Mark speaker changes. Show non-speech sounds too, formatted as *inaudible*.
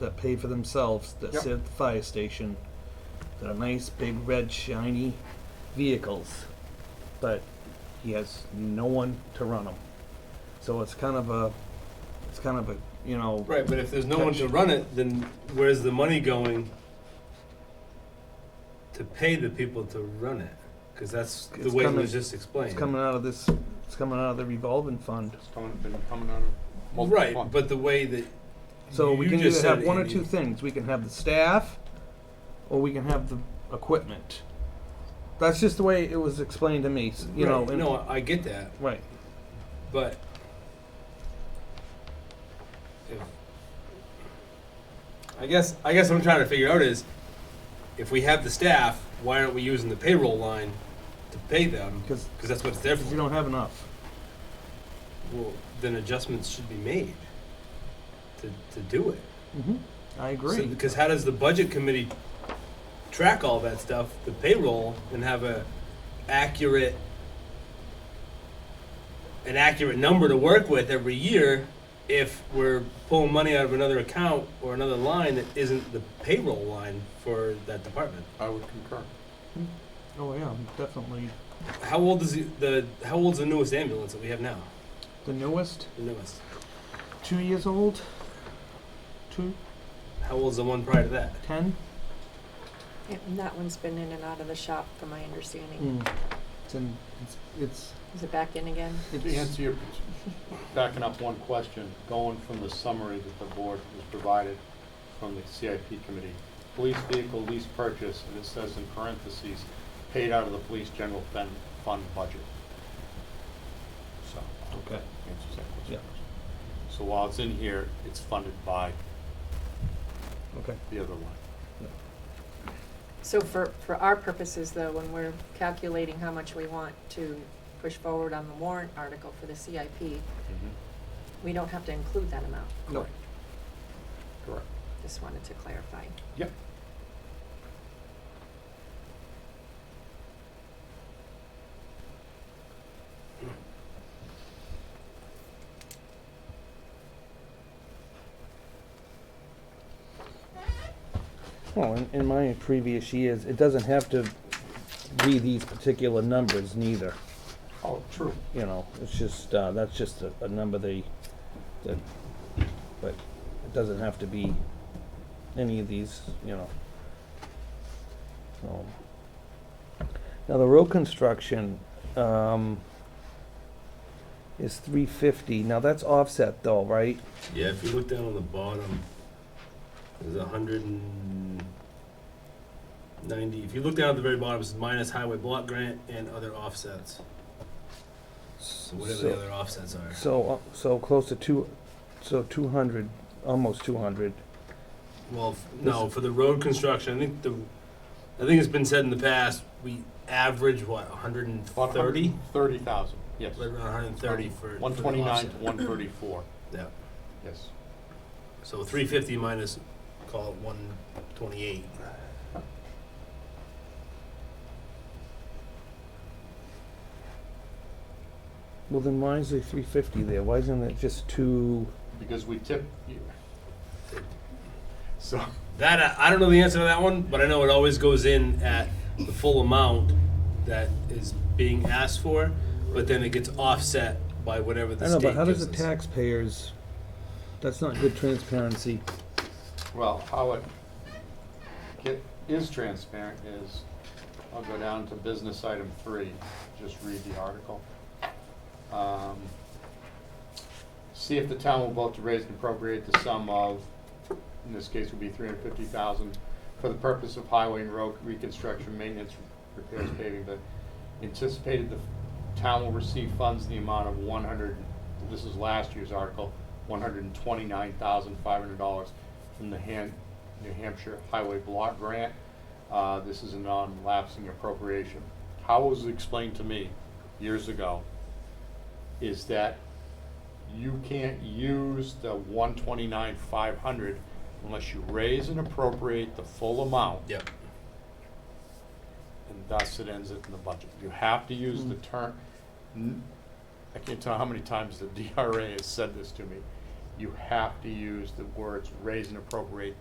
Speaker 1: that pay for themselves, that
Speaker 2: Yep.
Speaker 1: sit at the fire station, that are nice, big, red, shiny vehicles, but he has no one to run them. So it's kind of a, it's kind of a, you know,
Speaker 2: Right, but if there's no one to run it, then where's the money going to pay the people to run it? Because that's the
Speaker 1: It's
Speaker 2: way it
Speaker 1: coming-
Speaker 2: was just explained.
Speaker 1: it's coming out of this, it's coming out of the revolving fund.
Speaker 3: It's coming, been coming out of multiple
Speaker 2: Right,
Speaker 3: funds.
Speaker 2: but the way that
Speaker 1: So we
Speaker 2: you
Speaker 1: can
Speaker 2: just
Speaker 1: either have
Speaker 2: said,
Speaker 1: one or
Speaker 2: Andy,
Speaker 1: two things. We can have the staff, or we can have the equipment. That's just the way it was explained to me. s- You know,
Speaker 2: right,
Speaker 1: and-
Speaker 2: no, I get that,
Speaker 1: right?
Speaker 2: but if- I guess I guess what I'm trying to figure out is if we have the staff, why aren't we using the payroll line to pay them?
Speaker 1: Because
Speaker 2: Because that's what it's there
Speaker 1: we
Speaker 2: for.
Speaker 1: don't have enough.
Speaker 2: Well, then adjustments should be made to, to do it.
Speaker 1: Mm-hmm. I agree.
Speaker 2: So- Because how does the budget committee track all that stuff, the payroll, and have a accurate, an accurate number to work with every year if we're pulling money out of another account or another line that isn't the payroll line for that department?
Speaker 3: I would concur.
Speaker 1: oh yeah, definitely.
Speaker 2: How old is the- the, how old's the newest ambulance that we have now?
Speaker 1: The newest,
Speaker 2: The newest?
Speaker 1: two years old, two
Speaker 2: How old's the one prior to that?
Speaker 1: ten.
Speaker 4: Yeah, And that one's been in and out of the shop, from my understanding.
Speaker 1: Mm. It's in. It's it's.
Speaker 4: Is it back in again?
Speaker 3: To answer your, backing up one question, going from the summary that the board was provided from the CIP committee, police vehicle lease purchase, and it says in parentheses, paid out of the police general fund, fund budget. So,
Speaker 1: Okay.
Speaker 3: answers that
Speaker 1: Yeah.
Speaker 3: question. So while it's in here, it's funded by
Speaker 1: Okay.
Speaker 3: the other line.
Speaker 4: So for, for our purposes though, when we're calculating how much we want to push forward on the warrant article for the CIP,
Speaker 3: Mm-hmm.
Speaker 4: we don't have to include that amount.
Speaker 1: No.
Speaker 3: Correct.
Speaker 4: Just wanted to clarify.
Speaker 3: Yep.
Speaker 1: Well, in, in my previous years, it doesn't have to be these particular numbers neither.
Speaker 3: Oh, true.
Speaker 1: you know, it's just, uh, that's just a, a number they, that, but it doesn't have to be any of these, you know. So. Now, the road construction, um, is three fifty, now that's offset though, right?
Speaker 2: Yeah, if you look down on the bottom, there's a hundred and ninety, if you look down at the very bottom, it's minus highway block grant and other offsets. So whatever the
Speaker 1: So-
Speaker 2: other offsets are.
Speaker 1: So, uh, so close to two, so two hundred, almost two hundred,
Speaker 2: Well, f- no, for the road construction, I think the, I think it's been said in the past, we average, what, hundred and thirty?
Speaker 3: Thirty thousand, yes.
Speaker 2: Right around hundred and thirty for. for the
Speaker 3: One twenty-nine to
Speaker 2: offset.
Speaker 3: one thirty-four,
Speaker 2: Yeah,
Speaker 3: yes.
Speaker 2: so three fifty minus, call it one twenty-eight.
Speaker 1: well then why is there three fifty there, why isn't it just two?
Speaker 3: Because we tip, so,
Speaker 2: That uh, I- I don't know the answer to that one, but I know it always goes in at the full amount that is being asked for, but then it gets offset by whatever the
Speaker 1: I know,
Speaker 2: state
Speaker 1: but how does
Speaker 2: gives
Speaker 1: the
Speaker 2: us.
Speaker 1: taxpayers, that's not good transparency.
Speaker 3: well, how it get, is transparent is, I'll go down to business item three, just read the article. Um, See if the town will vote to raise and appropriate the sum of, in this case would be three hundred fifty thousand, for the purpose of highway and road reconstruction, maintenance, repairs, paving, the anticipated the town will receive funds in the amount of one hundred, this is last year's article, one hundred and twenty-nine thousand five hundred dollars from the Han, New Hampshire Highway Block Grant. Uh, this is a non-lapsing appropriation. How it was explained to me years ago is that you can't use the one twenty-nine five hundred unless you raise and appropriate the full amount
Speaker 2: Yep.
Speaker 3: and thus it ends it in the budget. You have to use the *laughs* term, n- I can't tell how many times the DRA has said this to me. you have to use the words raise and appropriate